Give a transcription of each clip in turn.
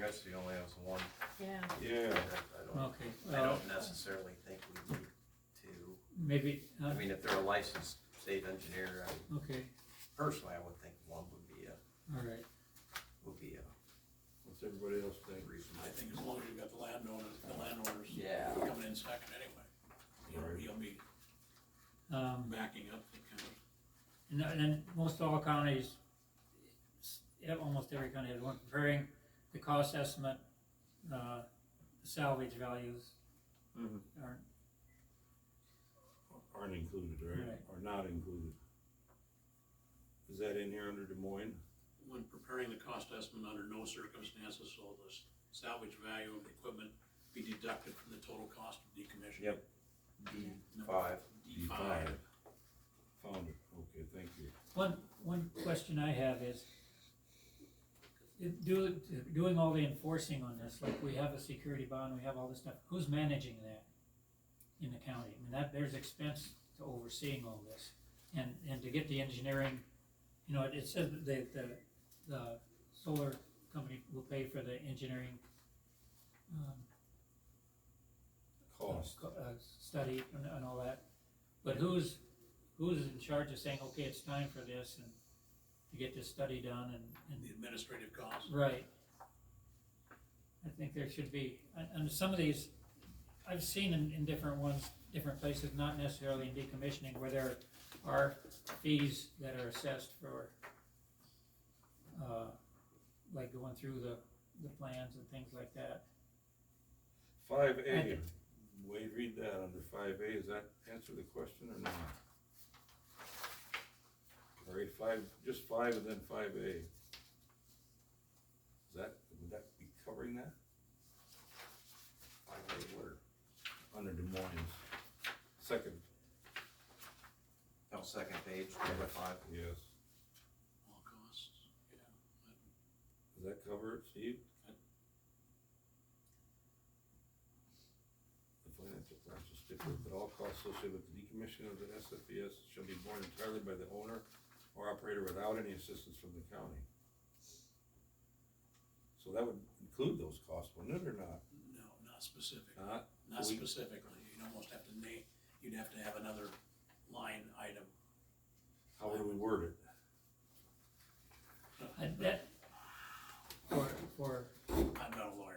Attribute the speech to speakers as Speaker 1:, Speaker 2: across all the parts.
Speaker 1: Cassidy only has one.
Speaker 2: yeah.
Speaker 3: Yeah.
Speaker 1: I don't,
Speaker 4: Okay, uh,
Speaker 1: I
Speaker 4: well,
Speaker 1: don't necessarily think we need to,
Speaker 4: maybe, uh,
Speaker 1: I mean, if they're a licensed state engineer, I,
Speaker 4: okay,
Speaker 1: personally, I would think one would be a,
Speaker 4: all right,
Speaker 1: would be a
Speaker 3: What's everybody else think?
Speaker 5: I
Speaker 1: reasonable.
Speaker 5: think as long as you got the landowner, the landowners
Speaker 1: Yeah.
Speaker 5: coming in second anyway. He'll, he'll be
Speaker 4: um,
Speaker 5: backing up the county.
Speaker 4: and then- and then most all counties, s- yeah, almost every county has one comparing the cost estimate, uh, salvage values.
Speaker 3: Mhm.
Speaker 4: Aren't,
Speaker 3: Aren't included, right?
Speaker 4: Right.
Speaker 3: Are not included. Is that in here under Des Moines?
Speaker 5: When preparing the cost estimate, under no circumstances will the salvage value of the equipment be deducted from the total cost of decommissioning.
Speaker 3: Yep.
Speaker 1: D
Speaker 5: Number
Speaker 1: five.
Speaker 5: D five.
Speaker 3: Found it, okay, thank you.
Speaker 4: One, one question I have is, if do, doing all the enforcing on this, like we have a security bond, we have all this stuff, who's managing that in the county? I mean, that, there's expense to overseeing all this, and, and to get the engineering, you know, it- it says that the, the, the solar company will pay for the engineering, um,
Speaker 3: Cost.
Speaker 4: co- uh, study and, and all that. But who's, who's in charge of saying, okay, it's time for this and to get this study done and,
Speaker 5: The administrative cost.
Speaker 4: and, right? I think there should be, and, and some of these, I've seen in, in different ones, different places, not necessarily in decommissioning, where there are fees that are assessed for, uh, like going through the, the plans and things like that.
Speaker 3: Five A, Wade, read that under five A, does that answer the question or not? All right, five, just five and then five A. Is that, would that be covering that? Five A where? Under Des Moines, second,
Speaker 1: No, second page, number five.
Speaker 3: yes,
Speaker 5: All costs, yeah.
Speaker 3: does that cover it, Steve? The financial plans shall stipulate that all costs associated with the decommissioning of the SFPS shall be borne entirely by the owner or operator without any assistance from the county. So that would include those costs, wouldn't it, or not?
Speaker 5: No,
Speaker 1: Uh,
Speaker 5: not specific,
Speaker 3: Not,
Speaker 5: not
Speaker 3: we-
Speaker 5: specifically. You'd almost have to name, you'd have to have another line item.
Speaker 3: how would we word it?
Speaker 4: I- that, for, for,
Speaker 5: I'm not a lawyer.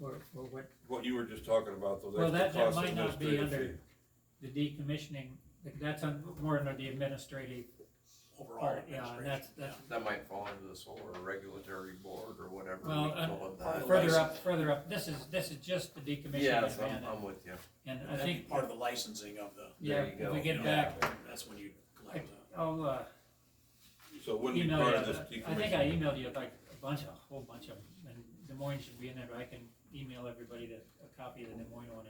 Speaker 4: for, for what
Speaker 3: What you were just talking about, those
Speaker 4: Well,
Speaker 3: extra
Speaker 4: that- that
Speaker 3: costs.
Speaker 4: might not be
Speaker 3: administrative
Speaker 4: the decommissioning, that's on, more under the administrative
Speaker 5: Overall
Speaker 4: part, yeah, and
Speaker 5: administration.
Speaker 4: that's, that's
Speaker 1: That might fall into the solar regulatory board or whatever. we
Speaker 4: Well, uh,
Speaker 1: call it that.
Speaker 5: part of the
Speaker 4: further up, further up, this is, this is just the decommissioning
Speaker 1: Yes,
Speaker 4: of
Speaker 1: I'm,
Speaker 4: Mandan.
Speaker 1: I'm with you.
Speaker 4: And I
Speaker 5: That'd be
Speaker 4: think,
Speaker 5: part of the licensing of the,
Speaker 4: yeah,
Speaker 1: There you
Speaker 4: if we
Speaker 1: go.
Speaker 4: get back,
Speaker 5: that's when you collect the.
Speaker 4: I'll, uh,
Speaker 3: fee. So it wouldn't be
Speaker 4: email
Speaker 3: part of this
Speaker 4: you, uh, I think I
Speaker 3: decommission,
Speaker 4: emailed you like a bunch, a whole bunch of, them, and Des Moines should be in there, but I can email everybody the, a copy of the Des Moines one,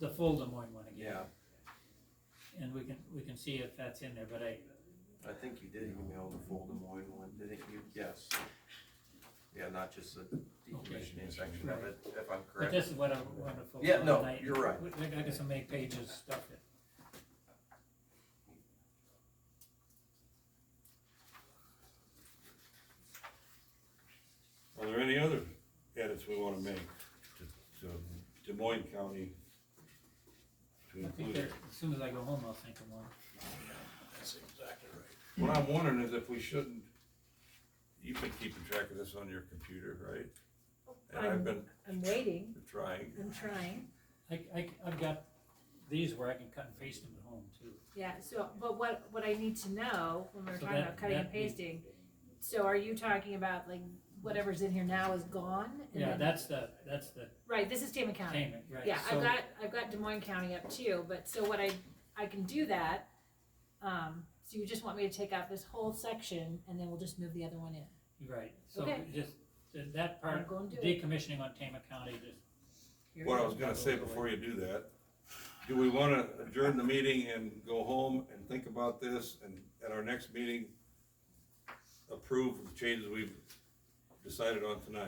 Speaker 4: the full Des Moines one again.
Speaker 1: Yeah,
Speaker 4: And we can, we can see if that's in there, but I,
Speaker 1: I think you did email the full Des Moines one, didn't you? Yes. Yeah, not just the decommissioning section of it, if I'm
Speaker 4: But
Speaker 1: correct.
Speaker 4: this is what I wanted to focus on.
Speaker 1: Yeah, no,
Speaker 4: tonight.
Speaker 1: you're right.
Speaker 4: We- I got some eight pages stuff that.
Speaker 3: are there any other edits we wanna make to, to Des Moines County? To
Speaker 4: I think
Speaker 3: include
Speaker 4: there,
Speaker 3: it?
Speaker 4: as soon as I go home, I'll think of one.
Speaker 5: Yeah, that's exactly right.
Speaker 3: What I'm wondering is if we shouldn't, you've been keeping track of this on your computer, right? And I've been
Speaker 2: I'm waiting,
Speaker 3: trying,
Speaker 2: I'm trying,
Speaker 4: I, I, have got these where I can cut and paste them at home too.
Speaker 2: yeah, so, but what, what I need to know, when we're
Speaker 4: So
Speaker 2: talking
Speaker 4: that-
Speaker 2: about cutting and
Speaker 4: that need-
Speaker 2: pasting, so are you talking about like whatever's in here now is gone? and
Speaker 4: Yeah,
Speaker 2: then-
Speaker 4: that's the, that's the
Speaker 2: Right, this is Tama County.
Speaker 4: payment, right?
Speaker 2: Yeah,
Speaker 4: So-
Speaker 2: I've got, I've got Des Moines County up too, but so what I, I can do that. Um, so you just want me to take out this whole section and then we'll just move the other one in.
Speaker 4: Right, so
Speaker 2: Okay.
Speaker 4: just, th- that
Speaker 2: I'm
Speaker 4: part,
Speaker 2: going to do it.
Speaker 4: decommissioning on Tama County, just,
Speaker 2: Here.
Speaker 3: what I was gonna say before you do that, do we wanna adjourn the meeting and go home and think about this, and at our next meeting, approve the changes we've decided on tonight?